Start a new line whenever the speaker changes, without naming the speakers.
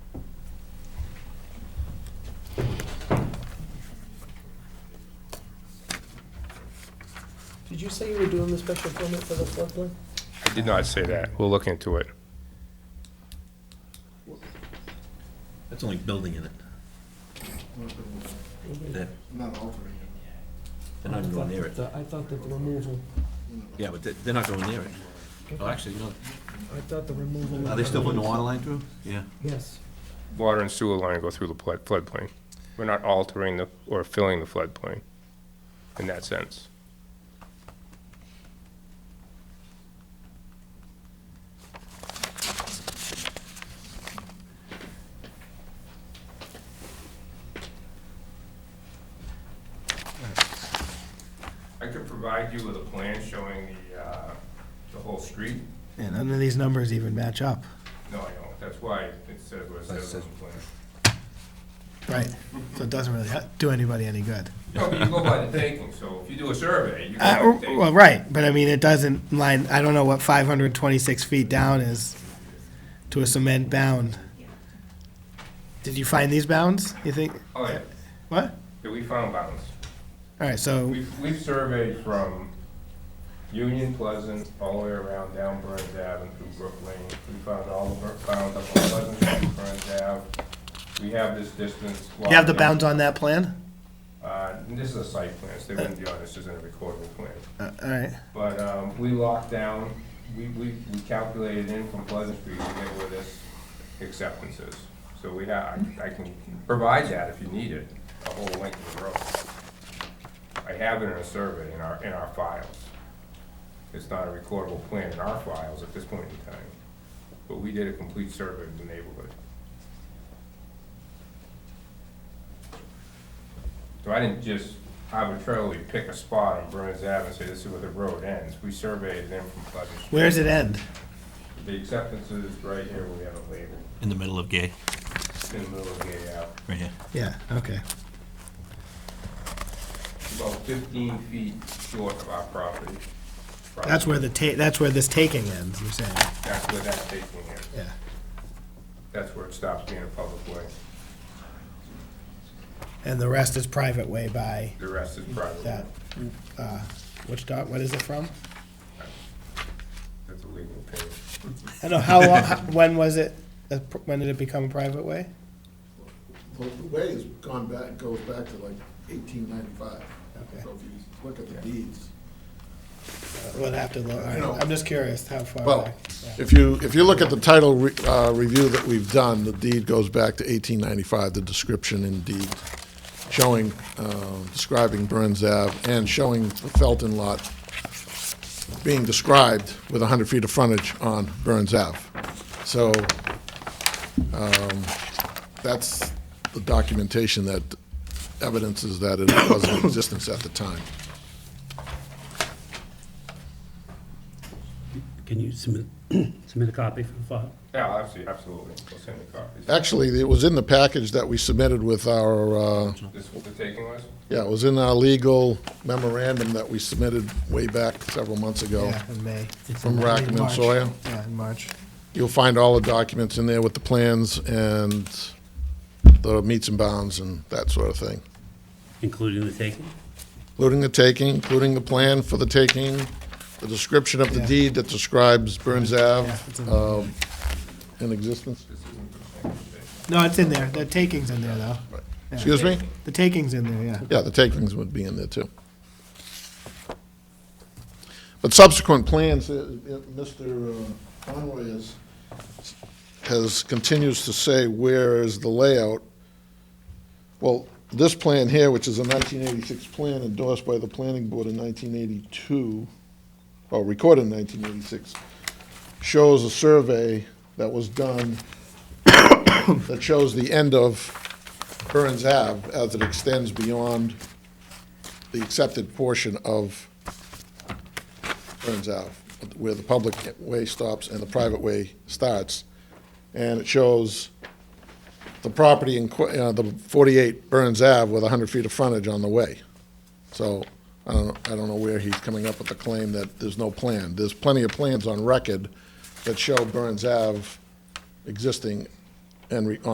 Did you say you were doing the special permit for the floodplain?
I did not say that. We'll look into it.
That's only building in it. They're
Not altering it.
they're not going near it.
I thought that the removal,
Yeah, but they're- they're not going near it. Oh, actually, no.
I thought the removal.
Are they still putting the water line through? Yeah.
Yes.
Water and sewer line go through the flood- floodplain. We're not altering the, or filling the floodplain in that sense. I could provide you with a plan showing the, uh, the whole street.
And none of these numbers even match up.
No, I don't. That's why it says what it says on the plan.
Right. So it doesn't really uh, do anybody any good.
No, but you go by the taking, so if you do a survey, you
Uh,
can take.
well, right, but I mean, it doesn't line, I don't know what five hundred twenty-six feet down is to a cement bound. Did you find these bounds, you think?
Oh, yeah,
What?
Yeah, we found bounds.
All right, so,
We've, we've surveyed from Union Pleasant all the way around down Burns Ave and through Brook Lane. We found all the bur- bounds up on Pleasant Street, Burns Ave. We have this distance.
you have
logged
the
in.
bounds on that plan?
Uh, and this is a site plan, so they wouldn't be on, this isn't a recordable plan.
Uh, all right,
But, um, we locked down, we, we, we calculated in from Pleasant Street to get where this acceptance is. So we have, I can provide that if you need it, the whole length of the road. I have it in a survey in our, in our files. It's not a recordable plan in our files at this point in time, but we did a complete survey of the neighborhood. So I didn't just arbitrarily pick a spot on Burns Ave and say, this is where the road ends. We surveyed them from Pleasant Street.
where does it end?
The acceptance is right here where we have it labeled,
In the middle of Gay,
in the middle of the Ave.
right here.
Yeah, okay.
It's about fifteen feet short of our property.
That's where the ta, that's where this taking ends, you're saying,
That's where that taking is.
yeah.
That's where it stops being a public way.
And the rest is private way by
The rest is private.
that, uh, which dot, what is it from?
That's a legal opinion.
I don't know, how long, how- when was it, uh, pr- when did it become a private way?
Well, the way has gone back, goes back to like eighteen ninety-five.
Okay.
So if you look at the deeds.
We'll have to look, all
No.
right, I'm just curious how far
Well,
back. Yeah.
if you, if you look at the title re- uh, review that we've done, the deed goes back to 1895, the description in deed, showing, um, describing Burns Ave and showing the Felton Lot being described with 100 feet of frontage on Burns Ave. So um, that's the documentation that evidences that it was in existence at the time.
Can you submit, submit a copy for the file?
Yeah, absolutely, absolutely. We'll send the copies.
Actually, it was in the package that we submitted with our uh,
This is what the taking was?
Yeah, it was in our legal memorandum that we submitted way back several months ago
Yeah, in May.
from Rackham and
March.
Sawyer.
Yeah, in March.
You'll find all the documents in there with the plans and the meets and bounds and that sort of thing,
Including the taking?
including the taking, including the plan for the taking, the description of the
Yeah.
deed that describes Burns Ave
Yeah, it's in there.
um, in existence.
This isn't the same thing.
No, it's in there, the taking's in there, though. Yeah.
Excuse me?
The taking's in there, yeah.
Yeah, the takings would be in there too. But subsequent plans, uh, uh, Mr. Conway is, has, continues to say, where is the layout? Well, this plan here, which is a 1986 plan endorsed by the planning board in 1982, or recorded in 1986, shows a survey that was done that shows the end of Burns Ave as it extends beyond the accepted portion of Burns Ave, where the public way stops and the private way starts. And it shows the property in, que- uh, the 48 Burns Ave with 100 feet of frontage on the way. So I don't, I don't know where he's coming up with the claim that there's no plan. There's plenty of plans on record that show Burns Ave existing and re-